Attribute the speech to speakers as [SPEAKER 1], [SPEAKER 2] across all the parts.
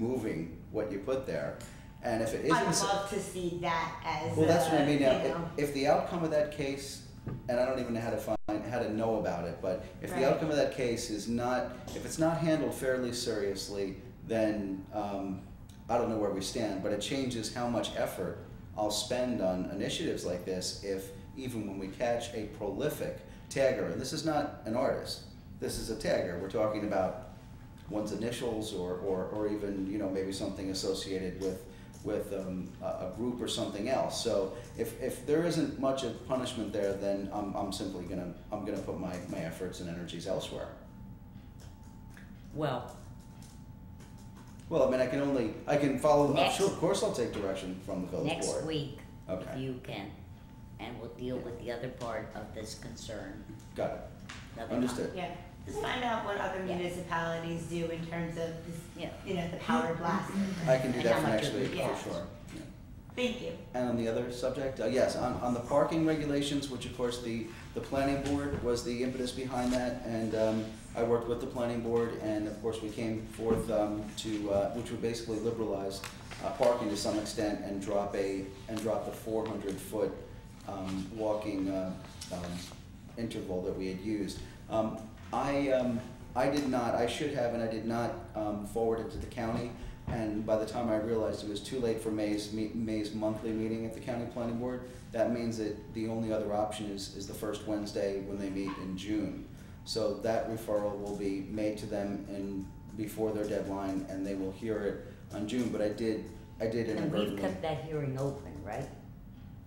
[SPEAKER 1] removing what you put there. And if it
[SPEAKER 2] I
[SPEAKER 1] isn't,
[SPEAKER 2] would
[SPEAKER 1] so-
[SPEAKER 2] love to see that as
[SPEAKER 1] well, that's what I
[SPEAKER 2] a,
[SPEAKER 1] mean
[SPEAKER 2] you
[SPEAKER 1] now.
[SPEAKER 2] know,
[SPEAKER 1] If, if the outcome of that case, and I don't even know how to find, how to know about it, but if
[SPEAKER 2] Right.
[SPEAKER 1] the outcome of that case is not, if it's not handled fairly seriously, then um, I don't know where we stand, but it changes how much effort I'll spend on initiatives like this if even when we catch a prolific tagger, and this is not an artist, this is a tagger. We're talking about one's initials or, or, or even you know maybe something associated with with um, a, a group or something else. So if, if there isn't much of punishment there, then I'm, I'm simply gonna I'm gonna put my, my efforts and energies elsewhere.
[SPEAKER 3] Well,
[SPEAKER 1] Well, I mean I can only I can follow up.
[SPEAKER 4] Next.
[SPEAKER 1] Sure, of course I'll take direction from the village
[SPEAKER 4] next
[SPEAKER 1] board.
[SPEAKER 4] week, if
[SPEAKER 1] Okay.
[SPEAKER 4] you can. And we'll deal with the other part of this concern.
[SPEAKER 1] Got it.
[SPEAKER 4] another time.
[SPEAKER 1] Understood.
[SPEAKER 2] yeah, just find out what other
[SPEAKER 4] Yeah.
[SPEAKER 2] municipalities do in terms of this,
[SPEAKER 4] Yeah.
[SPEAKER 2] you know, the power blast.
[SPEAKER 1] I can do
[SPEAKER 4] And
[SPEAKER 1] that
[SPEAKER 4] how
[SPEAKER 1] for
[SPEAKER 4] much
[SPEAKER 1] next
[SPEAKER 4] it
[SPEAKER 1] week
[SPEAKER 4] would
[SPEAKER 2] cost.
[SPEAKER 1] for sure. Yeah.
[SPEAKER 2] Thank you.
[SPEAKER 1] And on the other subject, uh, yes, on, on the parking regulations, which of course the, the planning board was the impetus behind that, and, um, I worked with the planning board, and of course we came forth, um, to, uh, which would basically liberalize, uh, parking to some extent and drop a, and drop the four hundred foot, um, walking, uh, um, interval that we had used. Um, I, um, I did not, I should have, and I did not um, forward it to the county. And by the time I realized it was too late for May's, me- May's monthly meeting at the county planning board, that means that the only other option is, is the first Wednesday when they meet in June. So that referral will be made to them in, before their deadline, and they will hear it on June. But I did, I did
[SPEAKER 4] And we've
[SPEAKER 1] inadvertently.
[SPEAKER 4] kept that hearing open, right?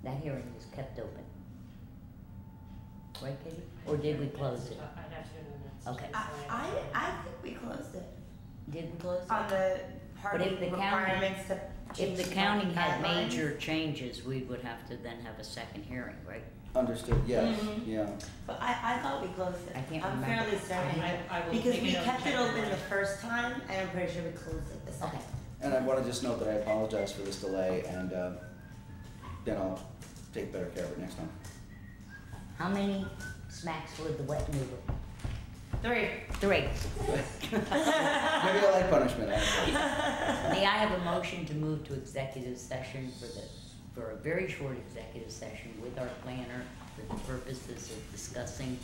[SPEAKER 4] That hearing was kept open. Right, Katie? Or did we close it?
[SPEAKER 5] I'd have to go to the minutes.
[SPEAKER 4] Okay.
[SPEAKER 2] I, I, I think we closed it
[SPEAKER 4] Did we close it?
[SPEAKER 2] on the party
[SPEAKER 4] if the county-
[SPEAKER 2] requirements to
[SPEAKER 4] If
[SPEAKER 2] change
[SPEAKER 4] the county had
[SPEAKER 2] guidelines.
[SPEAKER 4] major changes, we would have to then have a second hearing, right?
[SPEAKER 1] Understood, yes,
[SPEAKER 2] Mhm.
[SPEAKER 4] Mm-hmm.
[SPEAKER 1] yeah.
[SPEAKER 2] But I, I thought we closed it.
[SPEAKER 4] I can't
[SPEAKER 2] I'm
[SPEAKER 4] remember.
[SPEAKER 2] fairly certain,
[SPEAKER 5] I- I will
[SPEAKER 2] because
[SPEAKER 5] take
[SPEAKER 2] we
[SPEAKER 5] it out
[SPEAKER 2] kept
[SPEAKER 5] and
[SPEAKER 2] it
[SPEAKER 5] check
[SPEAKER 2] open
[SPEAKER 5] it.
[SPEAKER 2] the first time, and I'm pretty sure we closed it this time.
[SPEAKER 4] Okay.
[SPEAKER 1] And I want to just note that I apologize for this delay, and uh, then I'll take better care of it next time.
[SPEAKER 4] How many smacks would the wet noodle?
[SPEAKER 2] Three.
[SPEAKER 4] Three.
[SPEAKER 1] Maybe I like punishment. I don't know.
[SPEAKER 4] May I have a motion to move to executive session for the, for a very short executive session with our planner for the purposes of discussing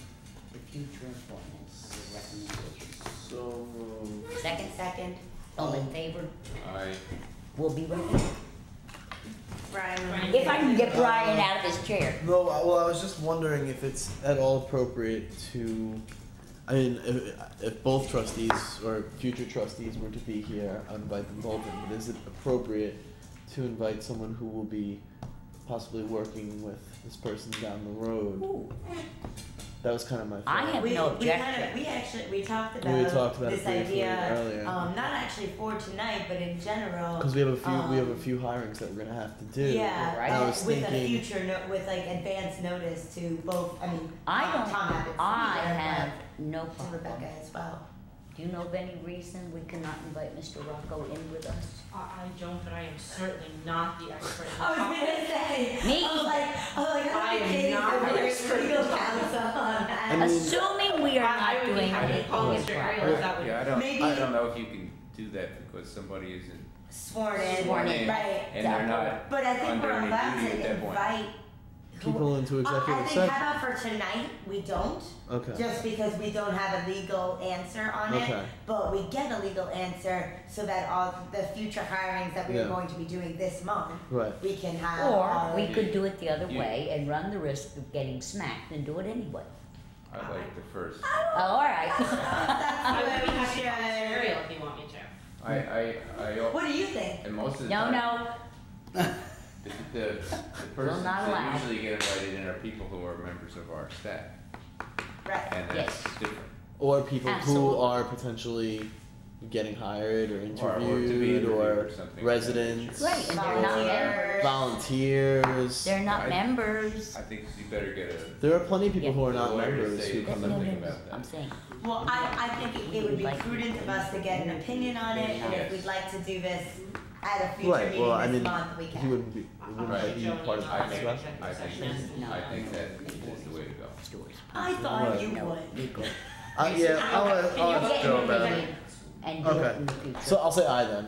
[SPEAKER 4] the future employment of the recommendation.
[SPEAKER 6] So moved.
[SPEAKER 4] Second,
[SPEAKER 2] Second,
[SPEAKER 4] all in favor?
[SPEAKER 6] Aye.
[SPEAKER 4] We'll be right back.
[SPEAKER 2] Brian.
[SPEAKER 4] If I can get Brian out of his chair.
[SPEAKER 6] No, I- well, I was just wondering if it's at all appropriate to, I mean, if, if both trustees or future trustees were to be here, I'd invite them both in, but is it appropriate to invite someone who will be possibly working with this person down the road?
[SPEAKER 4] Ooh,
[SPEAKER 6] That was kind of my
[SPEAKER 4] I
[SPEAKER 6] thought.
[SPEAKER 4] have
[SPEAKER 2] We,
[SPEAKER 4] no
[SPEAKER 2] we kind of,
[SPEAKER 4] objection.
[SPEAKER 2] we actually, we talked
[SPEAKER 6] We talked
[SPEAKER 2] about
[SPEAKER 6] about it
[SPEAKER 2] this
[SPEAKER 6] briefly
[SPEAKER 2] idea,
[SPEAKER 6] earlier.
[SPEAKER 2] um, not actually for tonight, but in general.
[SPEAKER 6] Because we have a few, we have a
[SPEAKER 2] um,
[SPEAKER 6] few hirings that we're gonna have to do.
[SPEAKER 2] Yeah,
[SPEAKER 4] right?
[SPEAKER 6] I
[SPEAKER 2] but
[SPEAKER 6] was
[SPEAKER 2] with a
[SPEAKER 6] thinking-
[SPEAKER 2] future, no- with like advance notice to both, I mean,
[SPEAKER 4] I
[SPEAKER 2] Tom
[SPEAKER 4] don't,
[SPEAKER 2] Abbott's
[SPEAKER 4] I
[SPEAKER 2] leader,
[SPEAKER 4] have no
[SPEAKER 2] but to
[SPEAKER 4] problem.
[SPEAKER 2] Rebecca as well.
[SPEAKER 4] Do you know of any reason we cannot invite Mr. Rocco in with us?
[SPEAKER 5] I, I don't, but I am certainly not the expert in the
[SPEAKER 2] I was
[SPEAKER 5] topic.
[SPEAKER 2] gonna say.
[SPEAKER 4] Me?
[SPEAKER 2] I was like, I was like,
[SPEAKER 5] I
[SPEAKER 2] I'm
[SPEAKER 5] am
[SPEAKER 2] kidding.
[SPEAKER 5] not
[SPEAKER 2] I'm
[SPEAKER 5] an
[SPEAKER 2] very
[SPEAKER 5] expert.
[SPEAKER 2] legal counsel on that.
[SPEAKER 6] I mean-
[SPEAKER 4] Assuming we are
[SPEAKER 5] I- I
[SPEAKER 4] not
[SPEAKER 5] would be
[SPEAKER 4] doing
[SPEAKER 5] happy to
[SPEAKER 4] anything
[SPEAKER 5] call Mr.
[SPEAKER 4] improper.
[SPEAKER 5] Ariel if that would-
[SPEAKER 7] Yeah, I don't,
[SPEAKER 2] Maybe-
[SPEAKER 7] I don't know if you can do that because somebody isn't,
[SPEAKER 2] sworn in,
[SPEAKER 4] Sworn
[SPEAKER 7] in.
[SPEAKER 2] right?
[SPEAKER 7] and they're not,
[SPEAKER 2] But I think
[SPEAKER 7] Under
[SPEAKER 2] we're
[SPEAKER 7] any
[SPEAKER 2] allowed
[SPEAKER 7] duty
[SPEAKER 2] to
[SPEAKER 7] at that point.
[SPEAKER 2] invite. who-
[SPEAKER 6] People into
[SPEAKER 2] I- I
[SPEAKER 6] executive
[SPEAKER 2] think
[SPEAKER 6] session.
[SPEAKER 2] how about for tonight we don't,
[SPEAKER 6] Okay,
[SPEAKER 2] just because we don't have a legal answer on it.
[SPEAKER 6] okay,
[SPEAKER 2] But we get a legal answer so that all the future hirings that we're
[SPEAKER 6] Yeah.
[SPEAKER 2] going to be doing this month,
[SPEAKER 6] right.
[SPEAKER 2] we can have.
[SPEAKER 4] Or
[SPEAKER 2] our-
[SPEAKER 4] we could do it the other
[SPEAKER 7] Oh, You-
[SPEAKER 4] way and run the risk of getting smacked and do it anyway.
[SPEAKER 7] I
[SPEAKER 2] Uh-uh.
[SPEAKER 7] like the first.
[SPEAKER 4] Oh, all right.
[SPEAKER 5] I
[SPEAKER 2] That's
[SPEAKER 5] would
[SPEAKER 2] what
[SPEAKER 5] be
[SPEAKER 2] we
[SPEAKER 5] happy to call Mr.
[SPEAKER 2] should.
[SPEAKER 5] Ariel if you want me to.
[SPEAKER 7] I, I, I, al-
[SPEAKER 2] What do you think?
[SPEAKER 7] and most of the
[SPEAKER 4] No,
[SPEAKER 7] time,
[SPEAKER 4] no,
[SPEAKER 7] the, the, the persons
[SPEAKER 4] not allow.
[SPEAKER 7] that usually get invited in are people who are members of our staff,
[SPEAKER 2] Right.
[SPEAKER 7] and that's
[SPEAKER 4] Yes.
[SPEAKER 7] different.
[SPEAKER 6] Or people
[SPEAKER 4] Absolutely.
[SPEAKER 6] who are potentially getting hired or
[SPEAKER 7] Or- or to be
[SPEAKER 6] interviewed
[SPEAKER 7] interviewed
[SPEAKER 6] or,
[SPEAKER 7] something of that
[SPEAKER 6] residents.
[SPEAKER 7] nature.
[SPEAKER 4] Right, and they're not
[SPEAKER 6] or
[SPEAKER 2] members.
[SPEAKER 6] Volunteers.
[SPEAKER 4] they're not
[SPEAKER 7] I-
[SPEAKER 4] members.
[SPEAKER 7] I think you better get a
[SPEAKER 6] there are plenty of people
[SPEAKER 4] Yeah.
[SPEAKER 6] who are
[SPEAKER 7] The
[SPEAKER 6] not
[SPEAKER 7] lawyer
[SPEAKER 6] members
[SPEAKER 7] say
[SPEAKER 6] who
[SPEAKER 7] that
[SPEAKER 6] come
[SPEAKER 7] no
[SPEAKER 6] in.
[SPEAKER 7] thinking
[SPEAKER 4] members,
[SPEAKER 7] about that.
[SPEAKER 4] I'm saying,
[SPEAKER 2] Well, I, I think it, it would be prudent of us to get an opinion on it, and if we'd like to do this at a future
[SPEAKER 6] Right, well, I
[SPEAKER 2] meeting this
[SPEAKER 6] mean,
[SPEAKER 2] month, we
[SPEAKER 6] He
[SPEAKER 2] can.
[SPEAKER 6] wouldn't be. It
[SPEAKER 5] I-
[SPEAKER 6] wouldn't
[SPEAKER 7] Right.
[SPEAKER 6] be part of the
[SPEAKER 7] I think,
[SPEAKER 6] discussion.
[SPEAKER 7] I think, I think that is the way to go.
[SPEAKER 4] stores.
[SPEAKER 2] I thought you
[SPEAKER 4] No,
[SPEAKER 2] would.
[SPEAKER 4] legal.
[SPEAKER 6] Uh, yeah, I'll,
[SPEAKER 5] Can you
[SPEAKER 6] I'll,
[SPEAKER 5] get
[SPEAKER 6] I'll
[SPEAKER 5] him
[SPEAKER 6] Joe
[SPEAKER 5] in
[SPEAKER 6] about
[SPEAKER 5] the
[SPEAKER 6] it.
[SPEAKER 5] minutes?
[SPEAKER 4] And do it
[SPEAKER 6] Okay.
[SPEAKER 4] in the future.
[SPEAKER 6] So I'll say I then.